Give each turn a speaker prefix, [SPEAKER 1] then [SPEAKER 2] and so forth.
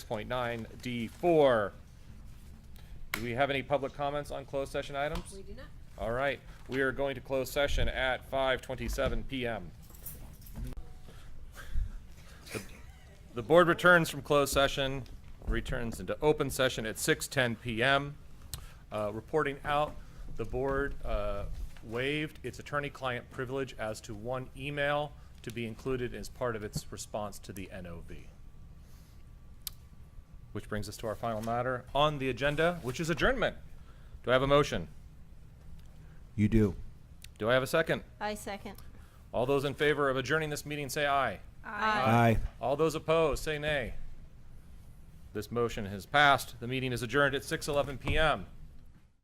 [SPEAKER 1] point nine D four. Do we have any public comments on closed session items?
[SPEAKER 2] We do not.
[SPEAKER 1] All right, we are going to close session at five twenty-seven PM. The- The board returns from closed session, returns into open session at six ten PM. Uh, reporting out, the board, uh, waived its attorney-client privilege as to one email to be included as part of its response to the NOV. Which brings us to our final matter on the agenda, which is adjournment. Do I have a motion?
[SPEAKER 3] You do.
[SPEAKER 1] Do I have a second?
[SPEAKER 4] I second.
[SPEAKER 1] All those in favor of adjourning this meeting say aye.
[SPEAKER 3] Aye.
[SPEAKER 1] All those opposed say nay. This motion has passed. The meeting is adjourned at 6:11 PM.